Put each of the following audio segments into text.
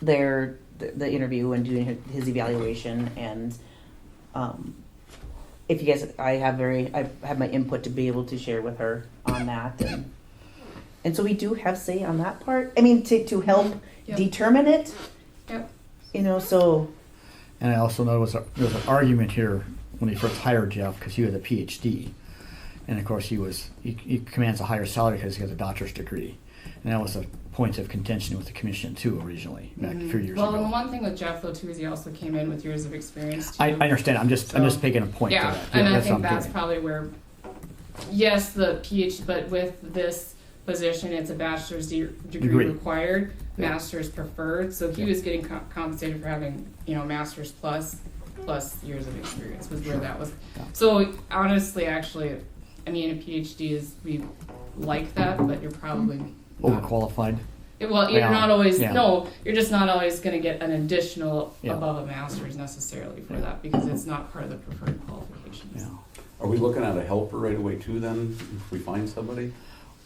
their the, the interview and doing his evaluation and um, if you guys i have very i have my input to be able to share with her on that and and so we do have say on that part i mean to, to help Yep. determine it Yep. you know so And I also know was a, there was an argument here when he first hired Jeff because he had a PhD, and of course he was he, he commands a higher salary because he has a doctor's degree, and that was a point of contention with the commission too originally back a few years Mm-hmm. Well, and ago. the one thing with Jeff though too is he also came in with years of experience. Too. I, I understand. I'm just I'm So- just making a point. Yeah, to that. and I that's think what I'm that's doing. probably where, yes, the PhD, but with this position, it's a bachelor's de- degree, Degree. required, Yeah. master's preferred. So he Yeah. was getting co- compensated for having you know master's plus plus years of experience was where that was. Yeah. So honestly, actually, I mean, a PhD is we like that, but you're probably not Hmm. overqualified. it- Well, you're Yeah. not always Yeah. no. You're just not always going to get an additional Yeah. above a master's necessarily for Yeah. that because it's not part of the preferred qualifications. Yeah. Are we looking at a helper right away too then, if we find somebody?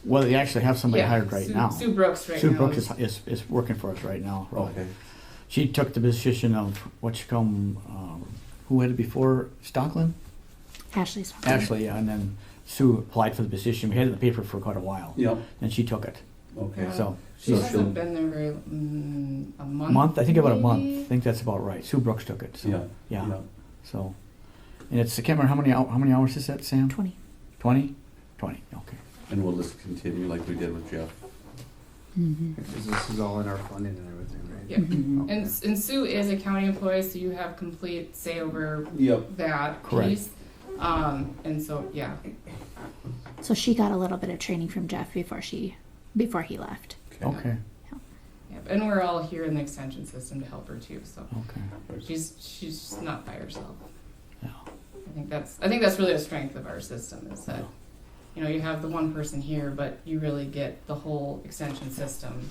Well, they actually have somebody hired right Sue, now. Sue Brooks right Sue now. Brooks is, is, is working for us right now. Right. Okay. She took the position of what you call 'em, um, who had it before Stockland. Ashley's one. Ashley, and then Sue applied for the position. We had it in the paper for quite a while, Yep, and she took it. okay. So she so hasn't she'll- been there very mm, a month. month, I think about a maybe? month. I think that's about right. Sue Brooks took it. So, Yeah. yeah. So, and it's I can't remember how many hou- how many hours is that, Sam? 20. Twenty. Twenty. Okay. And we'll just continue like we did with Jeff. Because this is all in our funding and everything, right? Yeah. Okay. And and Sue is a county employee, so you have complete say over Yep. that Correct. piece. Um, and so yeah, So she got a little bit of training from Jeff before she before he left. Okay. yeah, and we're all here in the extension system to help her too. So Okay. she's she's not by herself. Yeah. I think that's I think that's really a strength of our system is that you know you have the one person here, but you really get the whole extension system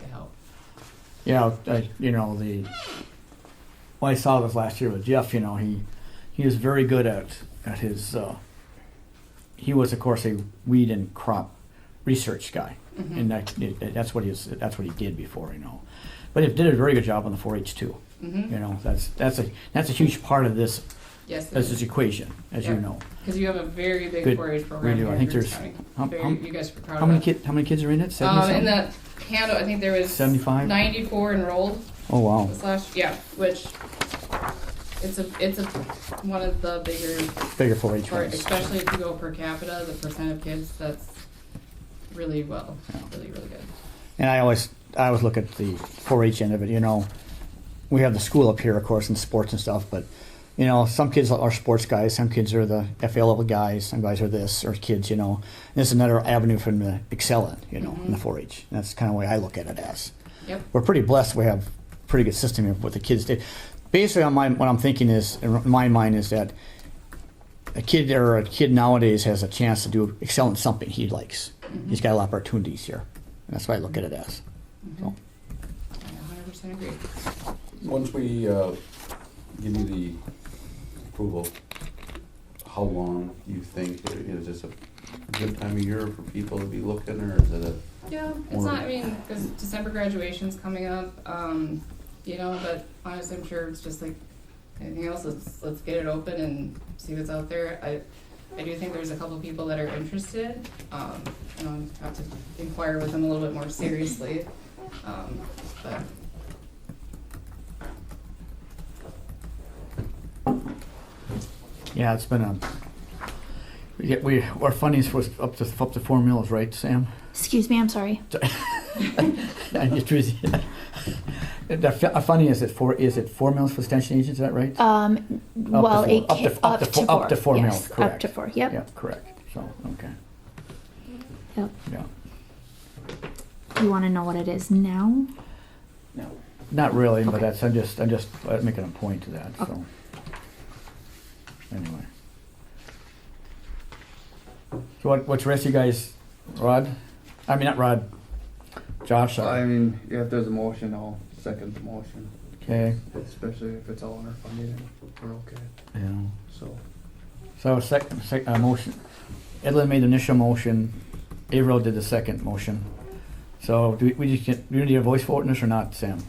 to help. Yeah. I, you know the. Well, I saw this last year with Jeff. You know he, he is very good at at his. Uh, he was of course a weed and crop research guy. Mm-hmm. and that, it- that's what he's that's what he did before, you know. But he did a very good job on the 4-H too. Mm-hmm. You know, that's that's a that's a huge part of this Yes, this is equation, as Yeah. you know. because you have a very big Good. 4-H We program. do. here I in think Griggs there's- County. How, very, how, you guys are proud how of many that. kid, how many kids are in it? Seventy Um, in something? that handle, I think there was 75? 94 enrolled Oh wow. this last yeah, which it's a it's a one of the bigger Bigger 4-H For, ones. especially if you go per capita, the percent of kids that's really well, Yeah. really really good. And I always I always look at the 4-H end of it. You know, we have the school up here, of course, in sports and stuff, but. You know, some kids are sports guys, some kids are the FA level guys, some guys are this, or kids, you know. And it's another avenue for them to excel in, you know, in the 4 H. That's kind of the way I look at it as. Yep. we're pretty blessed. We have pretty good system here with the kids. Did. Basically, on my what I'm thinking is in my mind is that a kid or a kid nowadays has a chance to do excel in something he likes. He's got a lot of opportunities here. And that's what I look at it as. So. I 100% agree. Once we, uh, give you the approval, how long you think, is this a good time of year for people to be looking or is it a? Yeah, it's Or- not. I mean, because December graduation's coming up, um, you know. But honestly, I'm sure it's just like anything else. Let's let's get it open and see what's out there. I I do think there's a couple people that are interested. Um, you know, I have to inquire with them a little bit more seriously. Um, but Yeah, it's been a. We, get- we our funding's was up to up to four mils, right, Sam? Excuse me, I'm sorry. I just was- The fu- our funding is at four is it four mils for extension agents? Is that right? Um, Up well, to it four- ca- up, to four. Up to four yes, mils, correct. Up to four. Yep. Yeah, correct. So okay. Yep. Yeah. You want to know what it is now? Not really, but Okay. that's, I'm just, I'm just uh, making a point to that, Okay. so. Anyway. So what, what's the rest of you guys, Rod? I mean, not Rod, Josh, So, I sorry. mean, yeah, if there's a motion, I'll second the motion, Okay, especially if it's all in our funding and we're okay, yeah. so. So second, sec, uh, motion, Edlin made the initial motion, Averill did the second motion. So do we, we just get, do we need a voice vote in this or not, Sam?